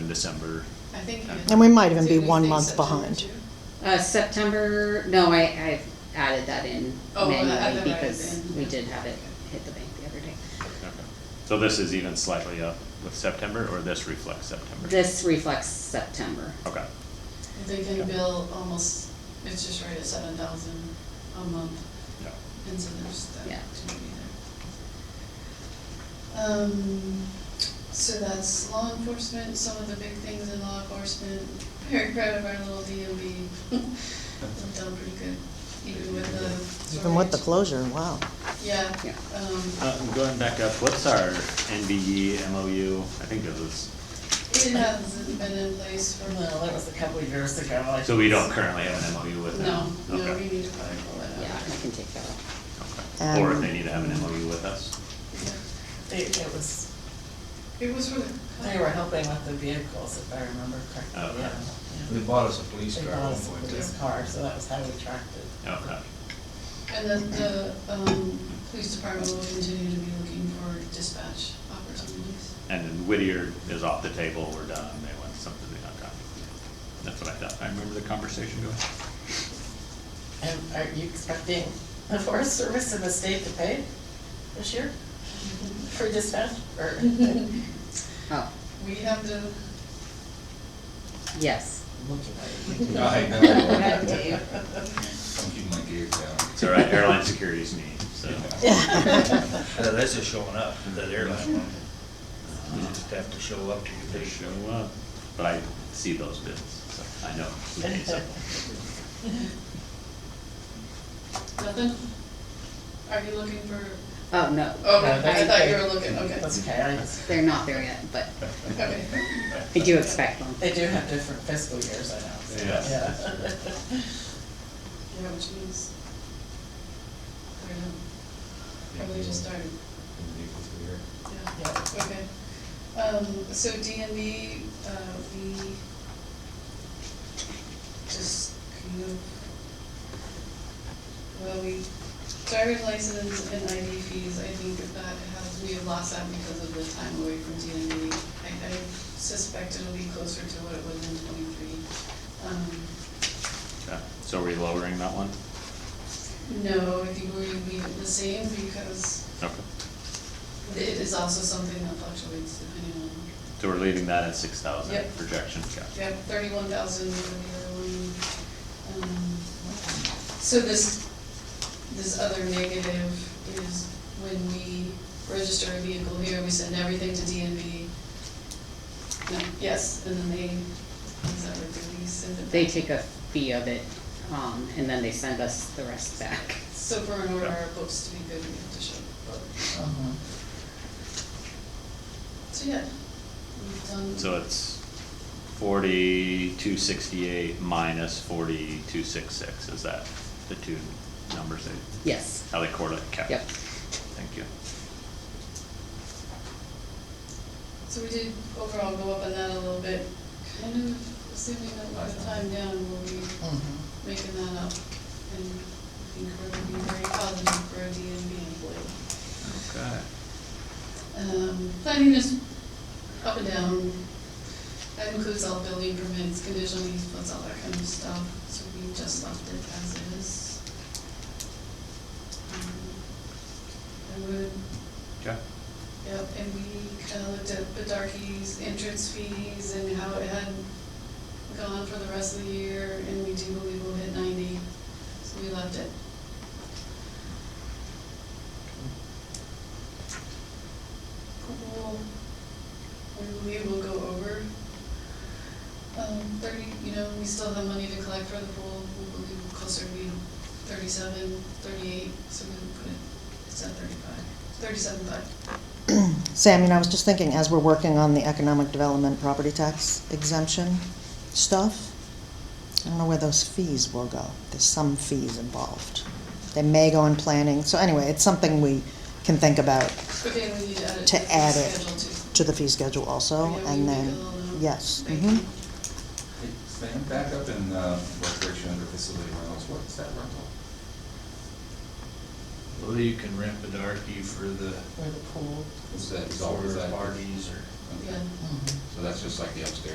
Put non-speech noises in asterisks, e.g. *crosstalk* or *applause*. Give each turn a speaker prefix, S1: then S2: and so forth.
S1: December.
S2: I think. you-
S3: And we might even be
S2: Did we
S3: one
S2: think
S3: month
S2: September
S3: behind.
S2: too?
S4: Uh, September, no, I, I added that in
S2: Oh, well, I added
S4: manually
S2: that
S4: because
S2: in.
S4: we did have it hit the bank the other day.
S1: Okay. So this is even slightly up with September, or this reflects September?
S4: This reflects September.
S1: Okay.
S2: They
S1: Yeah.
S2: can bill almost, it's just right at seven thousand a month,
S1: Yeah.
S2: and so there's that
S4: Yeah.
S2: opportunity there. Um, so that's law enforcement, some of the big things in law enforcement, very proud of our little
S5: *laughs*
S2: DMV. We've done pretty good, even with the.
S3: Even with the
S2: shortage.
S3: closure, wow.
S2: Yeah,
S4: Yeah.
S2: um,
S1: Uh, going back up, what's our E, NBE MOU? I think it was,
S2: it hasn't been in place for.
S5: Well, that was a couple of years ago. I
S1: so we don't currently have an MOU with
S2: No,
S1: them?
S2: no, we
S1: Okay.
S2: need to probably pull that
S4: Yeah,
S2: out.
S4: I can take that off.
S1: Okay. Or if
S3: Um,
S1: they need to have an MOU with us?
S2: Yeah.
S5: It, it was,
S2: It was for the.
S5: they were helping with the vehicles, if I remember
S1: Okay.
S5: correctly, yeah.
S6: They
S5: yeah.
S6: bought us a police
S5: They
S6: car
S5: bought
S6: at
S5: us a
S6: one point. *laughs*
S5: police car, so that was how we tracked it.
S1: Okay.
S2: And then the, um, police department will continue to be looking for dispatch
S5: *laughs*
S2: opportunities.
S1: And then Whittier is off the table, we're done, they want something they got done. That's what I thought, I remember the conversation going.
S5: And are you expecting the Forest Service and the state to pay this year for dispatch, or? Looking
S4: Oh,
S2: We have to,
S4: yes.
S5: at you.
S6: I
S5: *laughs*
S6: know.
S4: Right, Dave.
S6: I'm keeping my gear down.
S1: It's all right, airline security's neat, so. *laughs*
S6: Yeah, Uh, That's just showing up, that airline one. You just
S1: Uh,
S6: have to show up to your
S1: They
S6: base.
S1: show up, but I see those bids, so I know who needs them.
S2: *laughs* nothing? Are you looking for,
S4: Oh, no.
S2: oh,
S5: No,
S2: I
S5: that's
S2: thought
S5: okay.
S2: you were looking, okay,
S5: That's okay, I just,
S4: They're not there yet, but
S2: okay.
S4: I do expect one.
S5: they do have different fiscal years, I know, so,
S1: Yeah.
S5: yeah. *laughs*
S2: Yeah, which means, I don't know, probably just started, yeah.
S5: Yeah.
S2: Okay, um, so DMV, uh, we just kind of, well, we, driver's license and ID fees, I think that has, we have lost that because of the time away from DMV. I, I suspect it'll be closer to what it was in twenty-three. Um,
S1: Okay, So are we lowering that one?
S2: no, I think we're gonna be the same because
S1: Okay,
S2: it is also something that fluctuates depending on
S1: so we're leaving that at six thousand
S2: Yep.
S1: projection, okay.
S2: Yeah, thirty-one thousand for the other one. Um, So this, this other negative is when we register a vehicle here, we send everything to DMV. No, yes, and then they, is that what they send it?
S4: They
S2: back?
S4: take a fee of it, um, and then they send us the rest back.
S2: So for in order our books to be good, we have to show the book.
S5: Mhm.
S2: So yeah, we've done.
S1: So it's forty-two sixty-eight minus forty-two six six, is that the two numbers they,
S4: Yes.
S1: how they correlate? Okay.
S4: Yep.
S1: Thank you.
S2: So we did overall go up on that a little bit, kind of assuming that by the time down, will we
S5: Mhm.
S2: making that up, and I think we're gonna be very positive for a DMV employee.
S1: Okay.
S2: Um, planning is up and down, that includes all building permits, conditional use plans, all that kind of stuff, so we just left it as is. Um, I would,
S1: Okay.
S2: yep, and we kinda looked at Bedarkie's entrance fees and how it had gone for the rest of the year, and we do believe we'll hit ninety, so we left it Cool. We we will go over. Um, thirty, you know, we still have money to collect for the pool, we will be closer to being thirty-seven, thirty-eight, so we can put it, it's at thirty-five, thirty-seven five.
S3: Sam, you know, I was just thinking, as we're working on the economic development property tax exemption stuff, I don't know where those fees will go. There's some fees involved. They may go in planning, so anyway, it's something we can think about
S2: Okay, we need to add it.
S3: To
S2: the
S3: add it
S2: Schedule two.
S3: to the fee schedule also,
S2: Yeah, we
S3: and
S2: make
S3: then,
S2: a little note.
S3: yes.
S2: Thank
S3: mhm.
S2: you.
S6: Hey, Sam, back up in, uh, recreation under facility rentals, what's that rental?
S7: Well, you can rent Bedarkie for the,
S5: Or the pool.
S6: Is that, is all, is
S7: for
S6: that?
S7: parties or.
S2: Yeah.
S6: Okay.
S5: Mhm.
S6: So that's just like the upstairs